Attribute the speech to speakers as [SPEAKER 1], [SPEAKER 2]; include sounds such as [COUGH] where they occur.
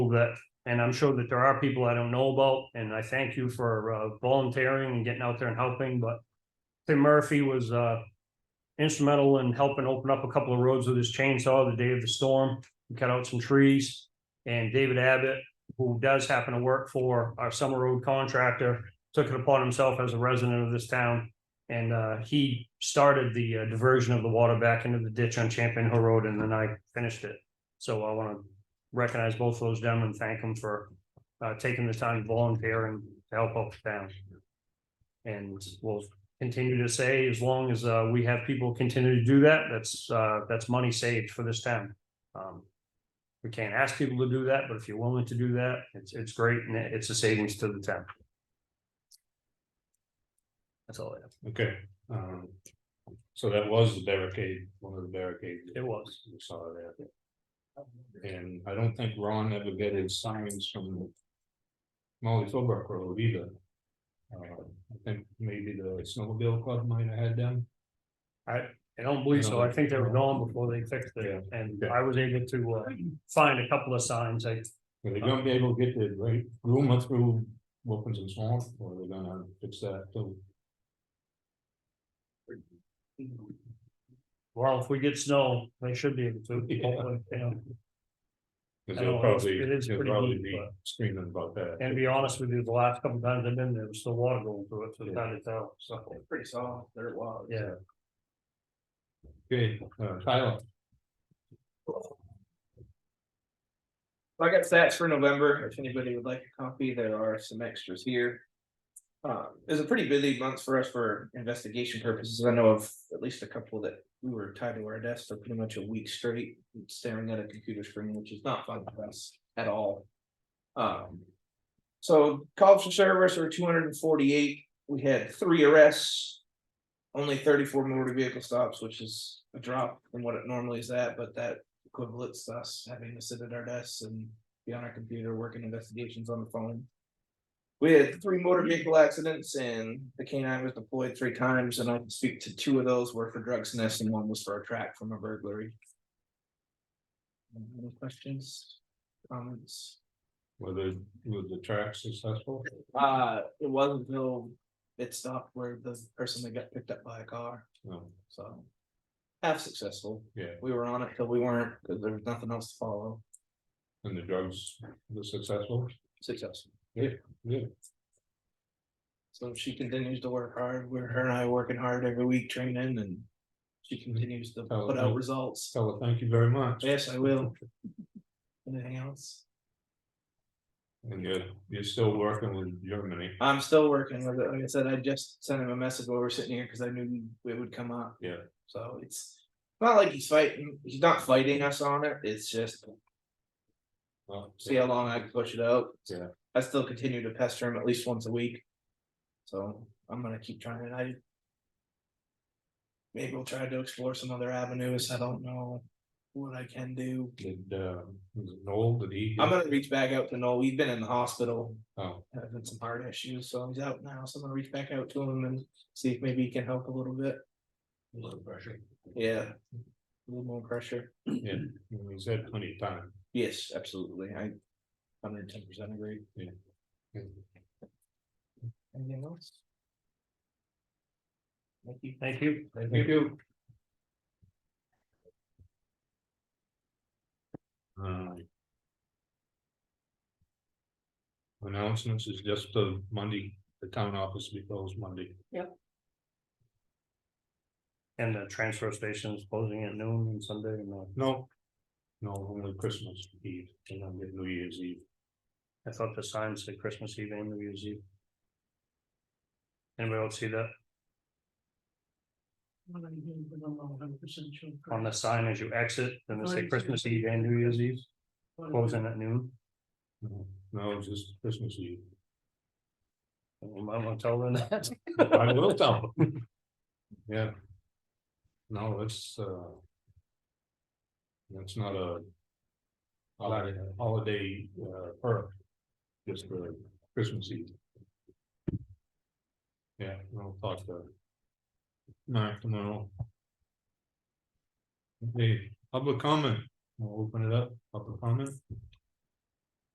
[SPEAKER 1] that, and I'm sure that there are people I don't know about, and I thank you for uh, volunteering and getting out there and helping, but Tim Murphy was uh, instrumental in helping open up a couple of roads with his chainsaw the day of the storm. We Cut out some trees, and David Abbott, who does happen to work for our summer road contractor, took it upon himself as a resident of this town and uh, he started the uh, diversion of the water back into the ditch on Champion Hill Road, and then I finished it. So I want to recognize both those gentlemen, and thank them for uh, taking the time to volunteer and to help out the town. And we'll continue to say, as long as uh, we have people continue to do that, that's, uh, that's money saved for this town. Um, We can't ask people to do that, but if you're willing to do that, it's, it's great, and it's a savings to the town. That's all I have.
[SPEAKER 2] Okay, um, so that was the barricade, one of the barricades.
[SPEAKER 1] It was.
[SPEAKER 2] We saw there. And I don't think Ron ever got his signs from Molly Philbrook Road either. Uh, I think maybe the snowmobile club might have had them.
[SPEAKER 1] I don't believe so. I think they were gone before they fixed it, and I was able to uh find a couple of signs. I,
[SPEAKER 2] Are they gonna be able to get the right room up through Wilkinson Swamp, or are they gonna fix that too?
[SPEAKER 1] well, if we get snow, they should be able to. hopefully, you know.
[SPEAKER 2] Cause
[SPEAKER 1] I know,
[SPEAKER 2] they'll
[SPEAKER 1] it's-
[SPEAKER 2] probably,
[SPEAKER 1] it is
[SPEAKER 2] they'll
[SPEAKER 1] pretty
[SPEAKER 2] probably
[SPEAKER 1] deep,
[SPEAKER 2] be
[SPEAKER 1] but-
[SPEAKER 2] screaming about that.
[SPEAKER 1] And to be honest with you, the last couple times I've been there, there's still water going through it, so it's hard to tell, so.
[SPEAKER 3] Pretty soft, they're wild.
[SPEAKER 1] Yeah.
[SPEAKER 2] Okay, uh, Tyler.
[SPEAKER 3] So I got stats for November, if anybody would like a copy, there are some extras here. Uh, it was a pretty busy month for us for investigation purposes, I know of at least a couple that we were tied to our desks for pretty much a week straight. Staring at a computer screen, which is not fun for us at all. Um. So calls for service are two hundred and forty-eight, we had three arrests. Only thirty-four motor vehicle stops, which is a drop from what it normally is at, but that equivalents to us having to sit at our desks and be on our computer working investigations on the phone. We had three motor vehicle accidents and the K nine was deployed three times and I can speak to two of those were for drug sniffs and one was for a track from a burglary. Any questions, comments?
[SPEAKER 2] Whether, was the track successful?
[SPEAKER 3] Uh, it wasn't until it stopped where the person that got picked up by a car,
[SPEAKER 2] No,
[SPEAKER 3] so. Half successful.
[SPEAKER 2] yeah,
[SPEAKER 3] We were on it till we weren't, because there was nothing else to follow.
[SPEAKER 2] and the drugs, the successful,
[SPEAKER 3] Successful.
[SPEAKER 2] yeah,
[SPEAKER 3] So she continues to work hard, we're her and I working hard every week training and she continues to
[SPEAKER 2] Oh,
[SPEAKER 3] put out
[SPEAKER 2] okay.
[SPEAKER 3] results.
[SPEAKER 2] Stella, thank you very much.
[SPEAKER 3] Yes, I will. Anything else?
[SPEAKER 2] And you're, you're still working with Germany,
[SPEAKER 3] I'm still working with it. Like I said, I just sent him a message while we we're sitting here because I knew it would come up.
[SPEAKER 2] Yeah.
[SPEAKER 3] So it's not like he's fighting, he's not fighting us on it. It's just
[SPEAKER 2] well,
[SPEAKER 3] see how long I can push it out.
[SPEAKER 2] Yeah.
[SPEAKER 3] I still continue to pester him at least once a week. So I'm gonna keep trying and I. Maybe we'll try to explore some other avenues. I don't know what I can do.
[SPEAKER 2] did, uh, was it Noel, did he?
[SPEAKER 3] I'm gonna reach back out to Noel. He's been in the hospital,
[SPEAKER 2] Oh,
[SPEAKER 3] having some heart issues, so he's out now. So I'm gonna reach back out to him and see if maybe he can help a little bit.
[SPEAKER 2] a little pressure.
[SPEAKER 3] Yeah. A little more pressure.
[SPEAKER 2] Yeah, he's had plenty of time.
[SPEAKER 3] Yes, absolutely. I hundred ten percent agree. Anything else? Thank you.
[SPEAKER 1] Thank you.
[SPEAKER 2] Thank you. Um, Announcements is just the Monday, the town office will be closed Monday.
[SPEAKER 1] And the transfer station is closing at noon on Sunday, and uh,
[SPEAKER 2] No. No, only Christmas Eve, and then New Year's Eve.
[SPEAKER 1] I thought the sign said Christmas Eve and New Year's Eve. Anybody else see that on the sign as you exit, then they say Christmas Eve and New Year's Eve, closing at noon?
[SPEAKER 2] No, No, it's just Christmas Eve.
[SPEAKER 1] You might want to tell them that.
[SPEAKER 2] [LAUGHS] I will tell them. [LAUGHS] Yeah. No, it's, uh. That's not a. Holiday, holiday, uh, perk. Just for Christmas Eve. Yeah, we'll talk to. Mark tomorrow. Okay, public comment, we'll open it up, public comment.